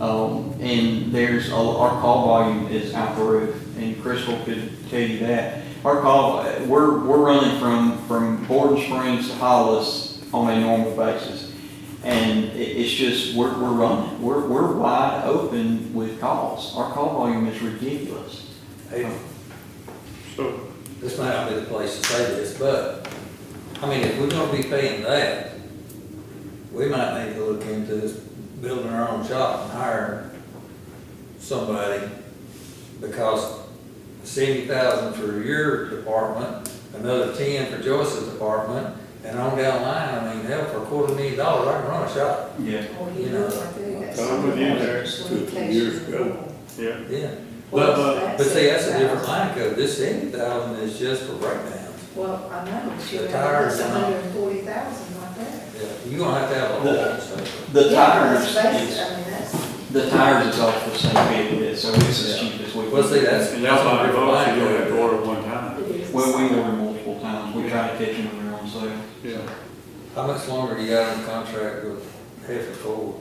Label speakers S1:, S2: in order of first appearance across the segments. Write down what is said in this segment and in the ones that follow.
S1: Um, and there's, a- our call volume is out the roof, and Crystal could tell you that. Our call, uh, we're, we're running from, from Borden Springs to Hollis on a normal basis. And it, it's just, we're, we're running, we're, we're wide open with calls. Our call volume is ridiculous.
S2: Hey,
S3: So,
S2: this might not be the place to say this, but, I mean, if we're gonna be paying that, we might need to look into this, building our own shop and hiring somebody, because seventy thousand for your department, another ten for Joyce's department, and on down the line, I mean, hell, for a quarter million dollars, I can run a shop,
S1: Yeah.
S4: Well, you know, I think that's.
S3: Time with you there,
S5: two, three years ago.
S3: yeah,
S2: yeah.
S4: Well,
S2: But,
S4: that's
S2: but see, that's a different
S4: 70,000.
S2: line code, this seventy thousand is just for breakdowns,
S4: Well, I know, but you
S2: The
S4: know,
S2: tires
S4: that's a
S2: and all.
S4: hundred and forty thousand right there.
S2: yeah, you're gonna have to have a whole, so.
S1: The
S4: Yeah,
S1: tires
S4: that's basic,
S1: is,
S4: I mean, that's,
S1: the tires is off the same bid, so it's as cheap as we can.
S2: Well, see, that's.
S3: and that's why
S2: a
S3: I've
S2: different
S3: always
S2: line
S3: only
S2: code.
S3: had to order one time,
S4: it is.
S1: Well, we order multiple times, we try to catch them when they're on sale.
S3: yeah.
S2: How much longer do you got on the contract with Heifer Ford?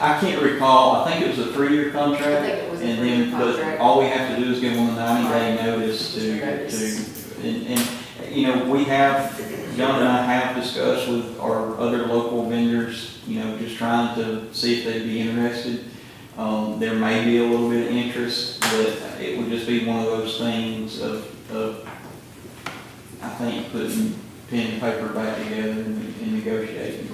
S1: I can't recall, I think it was a three-year
S5: I
S1: contract,
S5: think it was a
S1: and
S5: three-year
S1: then, but
S5: contract.
S1: all we have to do is give them a ninety-day notice to,
S5: Notice.
S1: to, and, and, you know, we have, John and I have discussed with our other local vendors, you know, just trying to see if they'd be interested. Um, there may be a little bit of interest, but it would just be one of those things of, of, I think, putting pen and paper back together and and negotiating.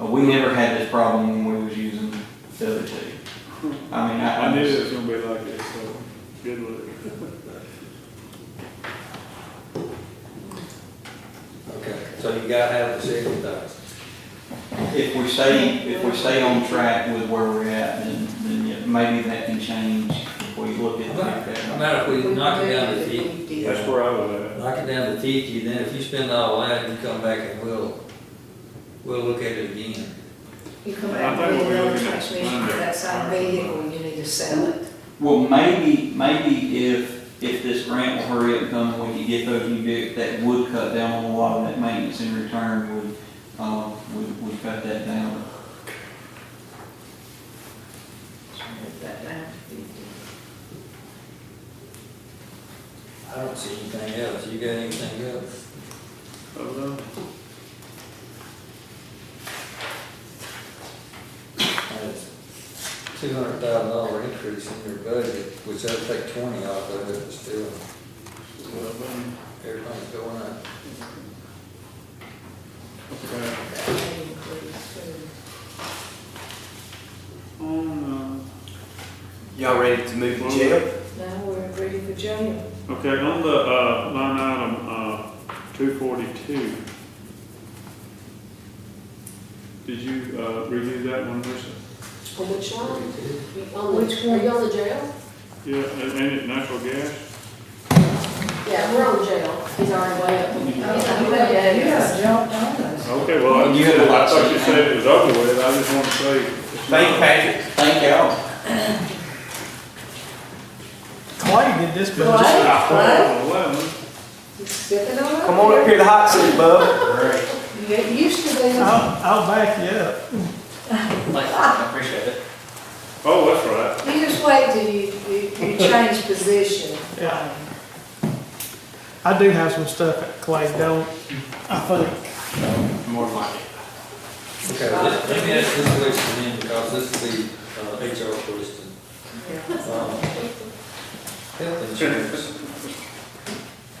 S1: Uh, We never had this problem when we was using the other two. I mean, I.
S3: I knew it was gonna be like this, so, good luck.
S2: Okay, so you gotta have the seventy thousand.
S1: If we stay, if we stay on track with where we're at, then, then yeah, maybe that can change if we look at
S2: No
S1: that.
S2: matter if we knock it down to
S5: We
S2: fifty,
S5: did it.
S3: That's where I was
S2: knock it down to fifty, then if you spend all that, you come back and we'll, we'll look at it again.
S4: You come
S3: I
S4: back
S3: think
S4: with
S3: we're
S4: another
S3: looking at
S4: transmission for
S3: Monday.
S4: that same vehicle, you need to sell it.
S1: Well, maybe, maybe if, if this grant will hurry up and come, and we can get those new vehicles, that would cut down on a lot of that maintenance in return would, um, would, would cut that down.
S4: Put that down to fifty.
S2: I don't see anything else. You got anything else?
S3: at, I was,
S2: That's two hundred thousand dollar increase in your budget, which that'll take twenty off of it, but still,
S3: uh,
S2: everything's going up.
S3: okay.
S4: That may include food.
S3: On,
S6: Y'all ready to move the jail?
S4: Now we're ready for jail.
S3: uh, okay, on the, uh, line item, uh, two forty-two. Did you, uh, review that one, Lisa?
S5: On which one? On the,
S4: Which one?
S5: are you on the jail?
S3: Yeah, and, and it natural gas?
S5: Yeah, we're on the jail. He's already way up.
S4: You
S5: I'm ready.
S4: have jumped on us.
S3: Okay, well, I
S1: You had a lot
S3: I thought you
S1: to say.
S3: said it was over with, I just wanna say. it's
S6: Thank you,
S3: not.
S6: Patrick.
S1: Thank y'all.
S7: Clay did this, but just
S4: What? What?
S3: Oh, well,
S4: You Stepping on up.
S6: Come on up here to the hot seat, bub.
S4: You get used to this.
S7: I'll, I'll back you up.
S6: I appreciate it.
S3: Oh, that's right.
S4: You just wait till you, you, you change position.
S7: Yeah. I do have some stuff that Clay don't, I think.
S6: More than likely.
S2: Okay, let let me ask this question then, because this is the uh, HR question.
S4: Yeah.
S2: Um, Health insurance.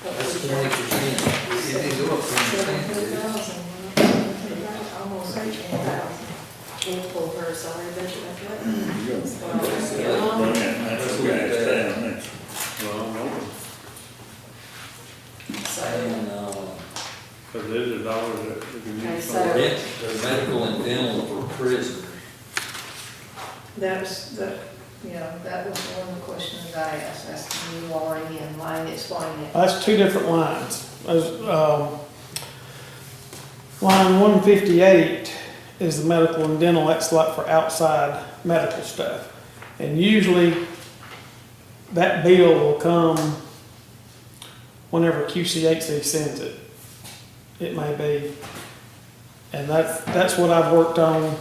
S2: That's twenty percent. It didn't go up twenty
S4: Seventeen
S2: percent.
S4: thousand, huh? almost eighteen thousand.
S5: We'll pull her salary budget back Oh.
S2: That's what we had.
S3: Well, no,
S2: And, uh,
S3: because there's a dollar that we can
S5: Okay,
S3: use.
S5: so-
S2: med- the medical and dental for prisoners.
S4: That was the, you know, that was one of the questions I asked, that's the new R E and line explain it.
S7: That's two different lines. There's, um, line one fifty-eight is the medical and dental, that's like for outside medical stuff. And usually, that bill will come whenever QCHC sends it. It may be, and that's, that's what I've worked on